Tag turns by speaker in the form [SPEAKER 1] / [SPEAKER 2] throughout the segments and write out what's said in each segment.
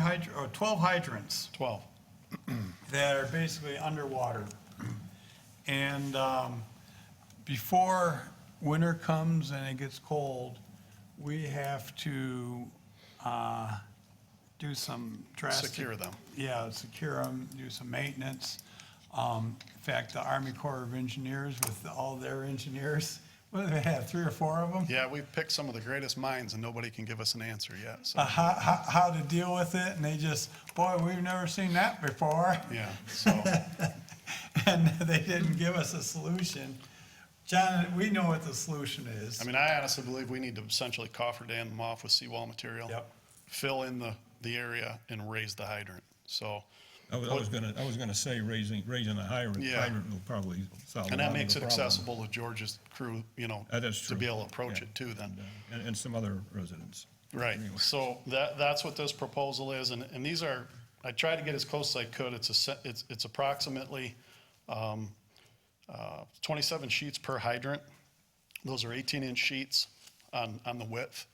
[SPEAKER 1] hydr, or 12 hydrants
[SPEAKER 2] 12.
[SPEAKER 1] that are basically underwater. And um, before winter comes and it gets cold, we have to uh, do some drastic.
[SPEAKER 2] Secure them.
[SPEAKER 1] Yeah, secure them, do some maintenance. Um, In fact, the Army Corps of Engineers with all their engineers, what do they have, three or four of them?
[SPEAKER 2] Yeah, we've picked some of the greatest minds and nobody can give us an answer yet, so,
[SPEAKER 1] Uh,
[SPEAKER 3] Ah.
[SPEAKER 1] How, how, how to deal with it, and they just, boy, we've never seen that before.
[SPEAKER 2] yeah, so,
[SPEAKER 1] and they didn't give us a solution. John, we know what the solution
[SPEAKER 2] I
[SPEAKER 1] is.
[SPEAKER 2] mean, I honestly believe we need to essentially coffer dam them off with seawall material.
[SPEAKER 1] Yep.
[SPEAKER 2] Fill in the, the area and raise the hydrant, so.
[SPEAKER 3] I was, I was gonna, I was gonna say raising, raising a hydrant,
[SPEAKER 2] Yeah.
[SPEAKER 3] hydrant will probably solve a lot of the problem.
[SPEAKER 2] And that makes it accessible to George's crew, you know.
[SPEAKER 3] That is true.
[SPEAKER 2] To be able to approach
[SPEAKER 3] Yeah.
[SPEAKER 2] it too then.
[SPEAKER 3] And, uh, And, and some other residents.
[SPEAKER 2] Right, so that, that's what this proposal is, and, and these are, I tried to get as close as I could, it's a, se- it's, it's approximately, um, uh, twenty-seven sheets per hydrant. Those are eighteen-inch sheets on, on the width,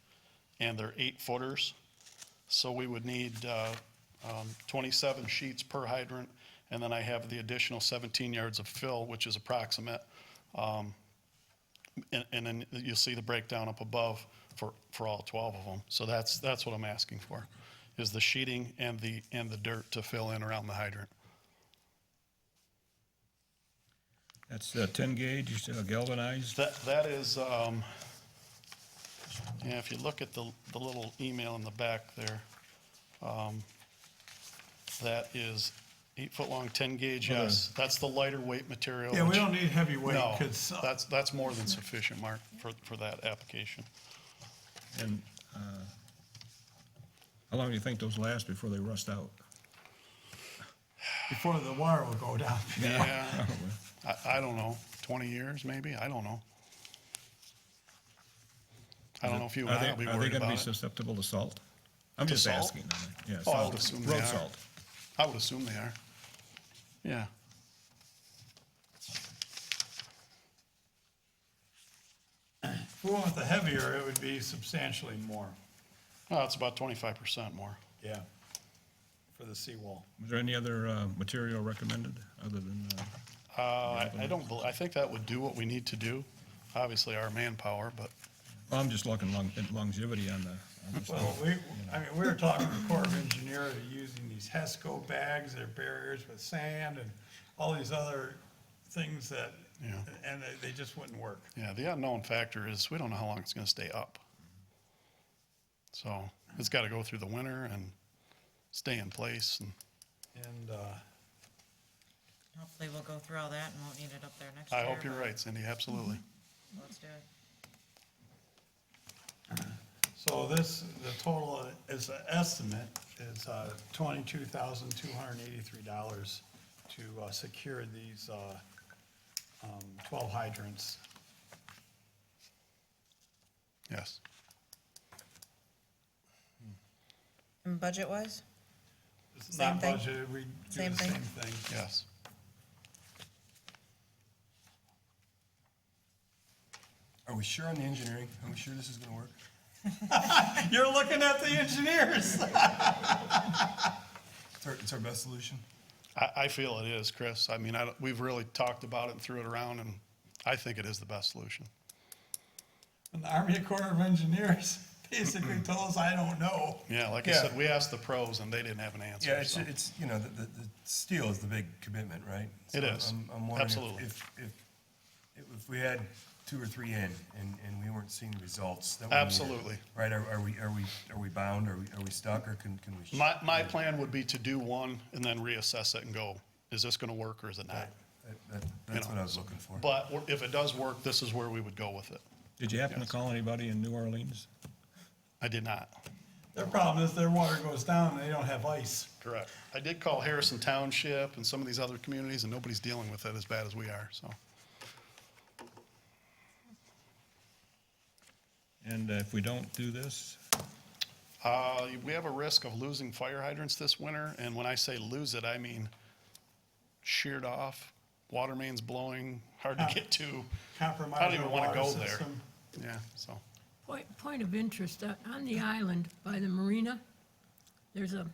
[SPEAKER 2] and they're eight footers. So we would need, uh, um, twenty-seven sheets per hydrant, and then I have the additional seventeen yards of fill, which is approximate. And, and then you'll see the breakdown up above for, for all 12 of them. So that's, that's what I'm asking for, is the sheeting and the, and the dirt to fill in around the hydrant.
[SPEAKER 3] That's uh, ten gauge, you said, uh, galvanized,
[SPEAKER 2] That, that is, um, yeah, if you look at the, the little email in the back there, um, that is eight-foot-long, 10-gauge, yes. That's the lighter weight material.
[SPEAKER 1] Yeah, we
[SPEAKER 2] which-
[SPEAKER 1] don't need heavyweight,
[SPEAKER 2] No,
[SPEAKER 1] because
[SPEAKER 2] that's, that's more than sufficient, Mark, for, for that application.
[SPEAKER 3] and, uh, how long do you think those last before they rust out?
[SPEAKER 1] before the water will go down.
[SPEAKER 2] Yeah, I, I don't know, 20 years maybe, I don't know. I don't know if you and
[SPEAKER 3] Are they,
[SPEAKER 2] I will be
[SPEAKER 3] are they
[SPEAKER 2] worried
[SPEAKER 3] gonna be
[SPEAKER 2] about it.
[SPEAKER 3] susceptible to salt? I'm
[SPEAKER 2] To
[SPEAKER 3] just
[SPEAKER 2] salt?
[SPEAKER 3] asking, I mean, yeah,
[SPEAKER 2] Oh, I
[SPEAKER 3] salt,
[SPEAKER 2] would assume they
[SPEAKER 3] road
[SPEAKER 2] are.
[SPEAKER 3] salt.
[SPEAKER 2] I would assume they are. Yeah.
[SPEAKER 1] If we went with the heavier, it would be substantially more,
[SPEAKER 2] Oh, it's about 25% more.
[SPEAKER 1] yeah, for the seawall.
[SPEAKER 3] Was there any other, uh, material recommended other than, uh,
[SPEAKER 2] Uh, I I don't, bel- I think that would do what we need to do, obviously our manpower, but
[SPEAKER 3] well, I'm just looking long, at longevity on the, on the
[SPEAKER 1] Well,
[SPEAKER 3] salt.
[SPEAKER 1] we, I mean, we were talking to Corps of Engineers using these HESCO bags, their barriers with sand and all these other things that,
[SPEAKER 2] Yeah.
[SPEAKER 1] and they, they just wouldn't work.
[SPEAKER 2] yeah, the unknown factor is we don't know how long it's going to stay up. So it's got to go through the winter and stay in place and
[SPEAKER 1] And, uh,
[SPEAKER 4] Hopefully we'll go through all that and won't need it up there next year.
[SPEAKER 2] I hope you're
[SPEAKER 4] but
[SPEAKER 2] right, Cindy, absolutely.
[SPEAKER 4] Let's do it.
[SPEAKER 1] So this, the total is an estimate, is uh, twenty-two thousand, two hundred and eighty-three dollars to uh, secure these uh, um, twelve hydrants.
[SPEAKER 2] Yes.
[SPEAKER 4] And budget-wise?
[SPEAKER 1] It's not
[SPEAKER 4] Same thing?
[SPEAKER 1] budgeted, we do
[SPEAKER 4] Same
[SPEAKER 1] the
[SPEAKER 4] thing?
[SPEAKER 1] same thing.
[SPEAKER 2] Yes.
[SPEAKER 5] Are we sure on the engineering? Are we sure this is gonna work?
[SPEAKER 1] You're looking at the engineers.
[SPEAKER 5] It's our, it's our best solution?
[SPEAKER 2] I, I feel it is, Chris. I mean, I, don't- we've really talked about it and threw it around, and I think it is the best solution.
[SPEAKER 1] And the Army Corps of Engineers basically
[SPEAKER 2] Mm-hmm.
[SPEAKER 1] told us, I don't know.
[SPEAKER 2] Yeah, like I
[SPEAKER 5] Yeah.
[SPEAKER 2] said, we asked the pros, and they didn't have an answer.
[SPEAKER 5] Yeah, it's,
[SPEAKER 2] so.
[SPEAKER 5] it's, you know, the, the, the steel is the big commitment, right? So
[SPEAKER 2] It is.
[SPEAKER 5] I'm- I'm wondering if-
[SPEAKER 2] Absolutely.
[SPEAKER 5] If, if, if we had two or three in and, and we weren't seeing the results that we needed,
[SPEAKER 2] Absolutely.
[SPEAKER 5] Right, are, are we, are we, are we bound? Are we, are we stuck or can, can we?
[SPEAKER 2] My, my plan would be to do one and then reassess it and go, is this gonna work or is it not?
[SPEAKER 5] That- that- That's what I was looking for.
[SPEAKER 2] But we're- if it does work, this is where we would go with it.
[SPEAKER 3] Did you happen to call anybody in New Orleans?
[SPEAKER 2] I did not.
[SPEAKER 1] Their problem is their water goes down and they don't have ice.
[SPEAKER 2] Correct. I did call Harrison Township and some of these other communities, and nobody's dealing with it as bad as we are, so.
[SPEAKER 3] And uh, if we don't do this,
[SPEAKER 2] Uh, we have a risk of losing fire hydrants this winter, and when I say lose it, I mean sheared off, water mains blowing, hard to get to. I
[SPEAKER 1] Compromise
[SPEAKER 2] don't
[SPEAKER 1] our
[SPEAKER 2] even wanna
[SPEAKER 1] water
[SPEAKER 2] go there.
[SPEAKER 1] system.
[SPEAKER 2] Yeah, so,
[SPEAKER 6] Point, point of interest, uh, on the island by the marina, there's a